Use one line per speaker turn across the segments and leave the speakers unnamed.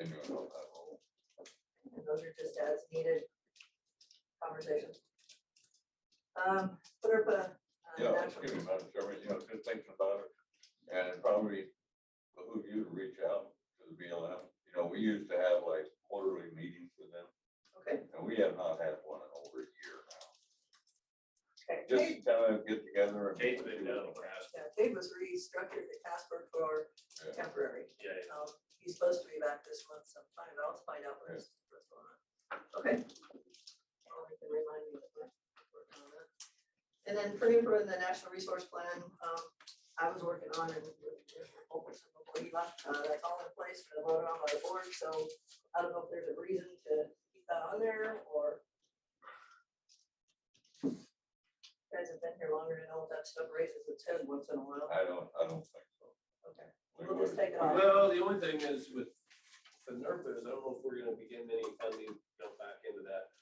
I knew about that whole.
And those are just as needed conversations. Um, put her, put a. uh,
Yeah,
down
just
for-
give me Madam Chairman, you know, just thinking about it, and it probably behoove you to reach out to the BLM. You know, we used to have like quarterly meetings with them,
Okay,
and we have not had one in over a year now.
okay. Cade-
Just kind of get together and.
Kate's been down in the past,
Yeah, Cade was restructured at Casper for
Yeah.
temporary.
yeah, yeah.
Um, he's supposed to be back this month sometime, but I'll find out what's, what's going on. Okay. I'll make them remind me that we're working on that. And then putting for the National Resource Plan, um, I was working on and with Commissioner Fulkerson before he left, uh, that's all in place for the vote on by the board, so I don't know if there's a reason to keep that on there or. You Guys have been here longer and all that stuff raises its head once in a while.
I don't, I don't think so.
Okay,
We
we'll just
would-
take it off.
Well, the only thing is with the NERPA is I don't know if we're gonna be getting any funding built back into that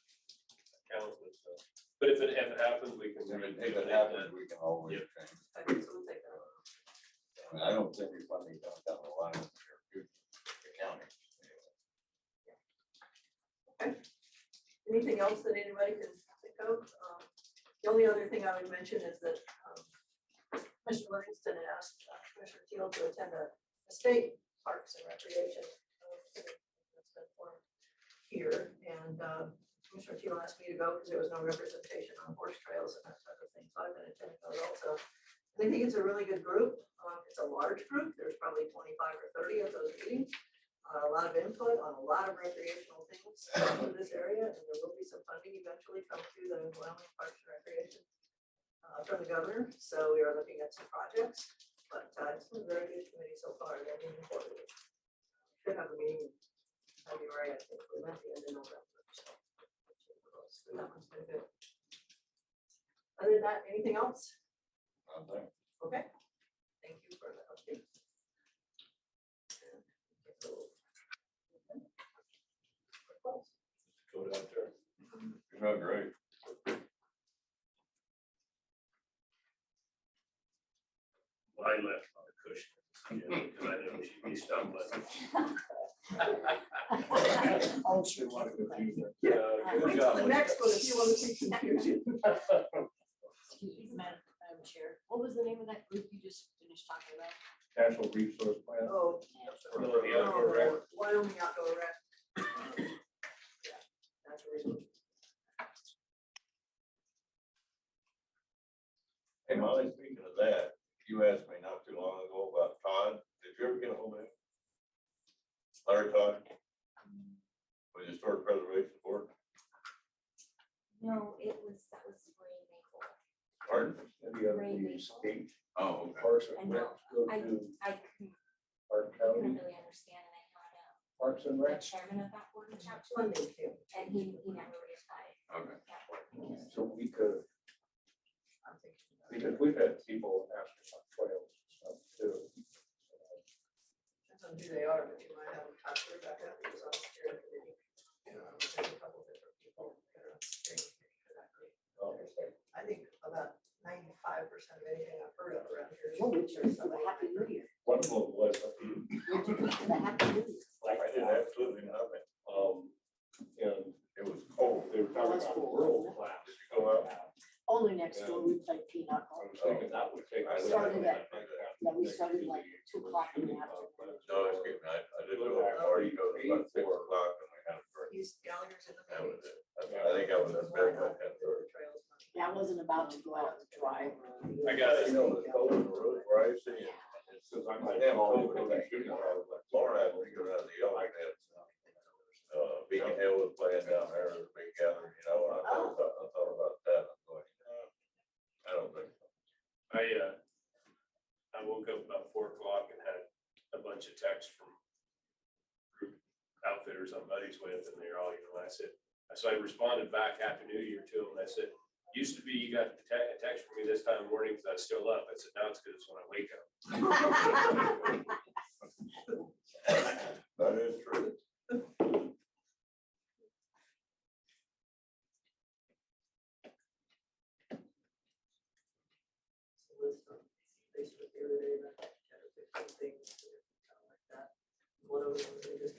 account and stuff. But if it, if it happens, we can.
If it-
rejuvenate
if it
that.
happens, we can always change.
Okay, so we'll take that off.
I mean, I don't think we funding comes down the line in the near future, the county.
Anything else that anybody can think of? Um, The only other thing I would mention is that um, Commissioner Livingston asked uh, Commissioner Teal to attend a a state parks and recreation. um, that's been formed Here, and um, Commissioner Teal asked me to go because there was no representation on horse trails and that type of thing, so I've been attending those also. And I think it's a really good group. Um, It's a large group. There's probably twenty-five or thirty of those meetings uh, a lot of input on a lot of recreational things in this area, and there will be some funding eventually come through the Wyoming Parks and Recreation uh, from the governor, so we are looking at some projects, but uh, it's been a very good committee so far, they're moving forward. Should have a meeting in February, I think, we might be in November. so. So that one's been good. Other than that, anything else?
I think.
Okay, thank you for the update.
Go down there.
You're doing great.
Well, I left on a cushion, you know, because I know she'd be stumbling.
Also wanted to do that.
Yeah,
Wait
good
till
job.
the next one if you want to see confusion.
Excuse me, Madam, Madam Chair, what was the name of that group you just finished talking about?
National Resource Plan.
Oh,
Well, the outdoor rec-
no, Wyoming outdoor rec. Yeah, that's a reason.
Hey Molly, speaking of that, you asked me not too long ago about Todd. Did you ever get a hold of him? Larry Todd? With the historic preservation board,
No, it was, that was Ray Maple.
pardon?
Any other the state
Oh,
parks and
I
rec
know.
go
I-
to
I couldn't,
our
couldn't
county
really understand and I had, uh,
parks and
the
rec.
chairman of that board reach out to him
Funding too.
and he, he never replied.
okay.
That board meeting.
So we could,
I'm thinking about it.
because we've had people asking about trails and stuff too.
Depends on who they are, but you might have them talk to her about that because I'm sure that they- you know, there's a couple different people that are on the steering committee for that group.
Oh,
I think about ninety-five percent of anything I've heard of around here. is
Well, we chose the
somebody-
Happy New Year.
One of them was,
The Happy New Year.
like,
I did absolutely nothing.
um, and
It was
oh,
cold.
they were talking about world class.
Did you go out?
Only next door, we played pinochle.
I was thinking that would take.
I
Started at- Yeah, we
Next
started
few
like
years.
two o'clock in the
Shooting
afternoon.
No, it's good. I, I did go to the party, go to about six o'clock and we had a drink.
He's Gallagher's in the.
That was it.
Philippines.
I I think I was in bed by ten thirty.
Trails money.
Yeah, I wasn't about to go out and drive.
I got it.
You know, the cold in the road where I see it. It's just, I'm like, damn, cold, but I'm shooting. I was like, Laura had me go down to the yard and had some uh, Beacon Hill was playing down there, the big gathering, you know, and I thought, about- I thought about that, I'm going, uh, I don't think. so.
I, uh, I woke up about four o'clock and had a bunch of texts from group outfitters I'm buddies with, and they're all, you know, I said, so I responded back Happy New Year to them, and I said, used to be you got a te- a text from me this time of morning, because I was still up, I said, now it's good, it's when I wake up.
That is true.
So this one, Facebook the other day, about ten or fifteen things, that are kind of like that. One of them was they just